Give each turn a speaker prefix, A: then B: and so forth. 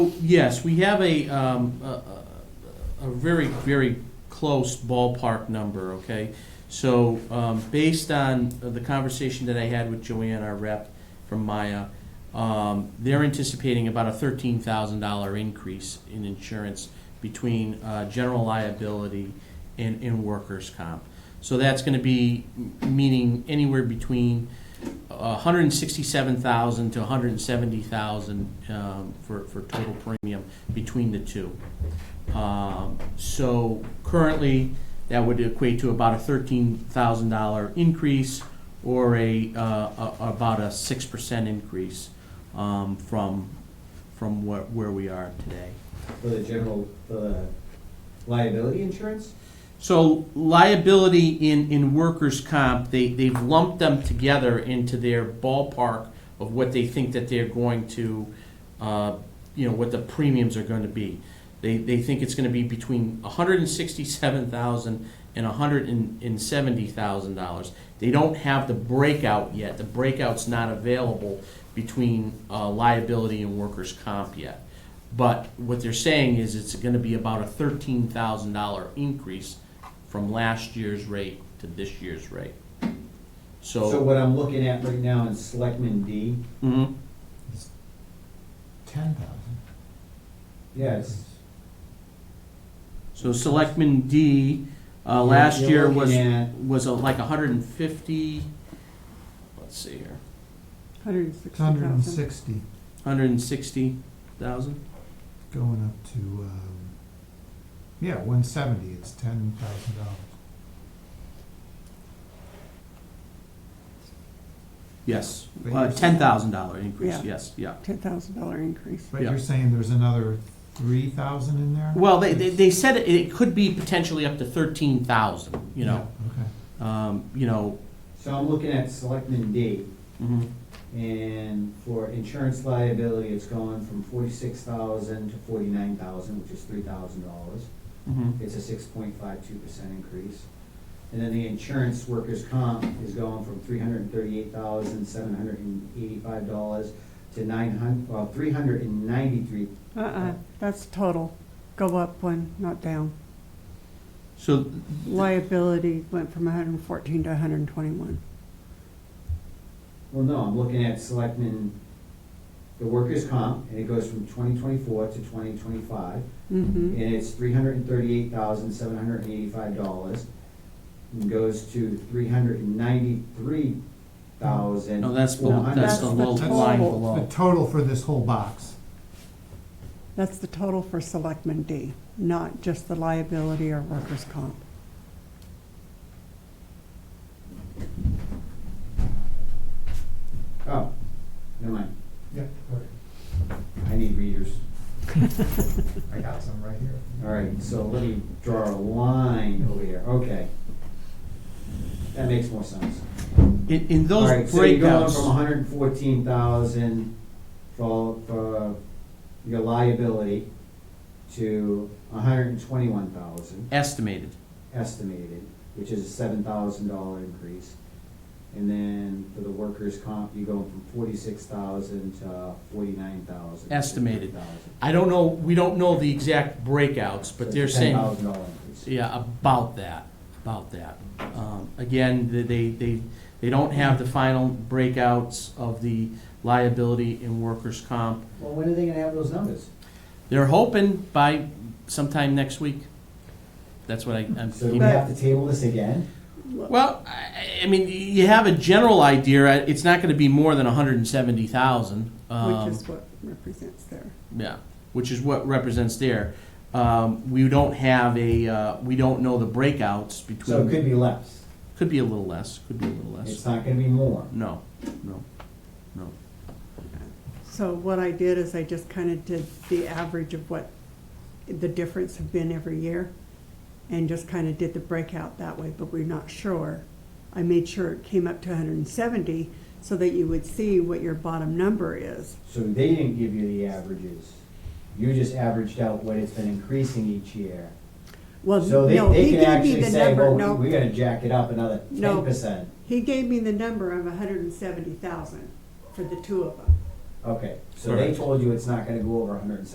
A: Yes, we have a, um, a, a- a very, very close ballpark number, okay? So, um, based on the conversation that I had with Joanne, our rep from Maya, um, they're anticipating about a thirteen thousand dollar increase in insurance between, uh, general liability and, and workers' comp. So that's gonna be, m- meaning anywhere between, uh, 167,000 to 170,000 um, for for total premium between the two. Um, So currently, that would equate to about a $13,000 increase or a, uh, a- about a 6% increase um, from, from where where we are today.
B: For the general, for the liability insurance?
A: So liability in, in workers' comp, they, they've lumped them together into their ballpark of what they think that they're going to, uh, you know, what the premiums are gonna be. They, they think it's gonna be between a hundred and sixty-seven thousand and a hundred and seventy thousand dollars. They don't have the breakout yet, the breakout's not available between, uh, liability and workers' comp yet. But what they're saying is it's gonna be about a thirteen thousand dollar increase from last year's rate to this year's rate.
B: So
A: So,
B: what I'm looking at right now in Selectman D,
A: Mhm.
C: Ten thousand.
B: yes.
A: so selectman D, uh, last
B: You're
A: year was,
B: looking at-
A: was a- like hundred and fifty, let's see here,
D: Hundred and sixty
C: Hundred and
D: thousand.
C: sixty,
A: hundred and sixty thousand?
C: going up to, um, yeah, one seventy, it's ten thousand dollars.
A: Yes,
C: But
A: uh,
C: you're-
A: ten thousand dollar increase,
D: Yeah.
A: yes, yeah.
D: Ten thousand dollar increase.
C: But
A: Yeah.
C: you're saying there's another three thousand in there?
A: Well, they, they, they said it, it could be potentially up to thirteen thousand, you know,
C: Yeah, Okay.
A: um, you know,
B: So I'm looking at Selectman D,
A: mhm.
B: and for insurance liability, it's going from forty-six thousand to forty-nine thousand, which is three thousand dollars.
A: Mhm.
B: It's a six point five two percent increase. And then the insurance workers' comp is going from three hundred and thirty-eight thousand, seven hundred and eighty-five dollars to nine hun, well, three hundred and ninety-three
D: Uh-uh, that's total. Go up one, not down.
A: So
D: Liability went from hundred and fourteen to hundred and twenty-one.
B: Well, no, I'm looking at selectmen, the workers' comp, and it goes from twenty twenty-four to twenty twenty-five, and
D: Mm-hmm.
B: it's three hundred and thirty-eight thousand, seven hundred and eighty-five dollars. And goes to three hundred and ninety-three thousand.
A: No, that's below, that's the
D: the
A: low
D: total.
A: line
C: The
A: below.
C: total for this whole box,
D: That's the total for Selectman D, not just the liability or workers' comp.
B: Oh, never mind,
E: Yeah, right.
B: I need readers.
E: I got some right here.
B: All right, so let me draw a line over here, okay. That makes more sense.
A: In, in
B: All
A: those
B: right, so you're going from
A: breakouts,
B: hundred and fourteen thousand for, for your liability to hundred and twenty-one thousand
A: estimated,
B: estimated, which is a seven thousand dollar increase. And then for the workers' comp, you're going from forty-six thousand to forty-nine thousand.
A: Estimated. I don't know, we don't know the exact breakouts, but they're saying,
B: Ten thousand dollar increase.
A: yeah, about that, about that. Um, Again, they- they, they, they don't have the final breakouts of the liability and workers' comp.
B: Well, when are they gonna have those numbers?
A: They're hoping by sometime next week. That's what I, I'm.
B: So do we have to table this again?
A: Well, I, I mean, you have a general idea, uh, it's not gonna be more than hundred and seventy thousand. um,
D: Which is what represents there.
A: Yeah, which is what represents there. Um, we don't have a, uh, we don't know the breakouts
B: So
A: between.
B: it could be less,
A: Could be a little less, could be a little
B: it's
A: less.
B: not gonna be more.
A: No, no, no.
D: So what I did is I just kind of did the average of what the difference have been every year and just kind of did the breakout that way, but we're not sure. I made sure it came up to hundred and seventy so that you would see what your bottom number is.
B: So they didn't give you the averages. You just averaged out what it's been increasing each year.
D: Well,
B: So they,
D: no,
B: they
D: he
B: can
D: gave me
B: actually
D: the
B: say,
D: number,
B: well, we- we
D: no,
B: gotta jack it up another
D: No.
B: ten percent.
D: he gave me the number of hundred and seventy thousand for the two of them.
B: Okay, so they
A: Correct.
B: told you it's not gonna go over hundred and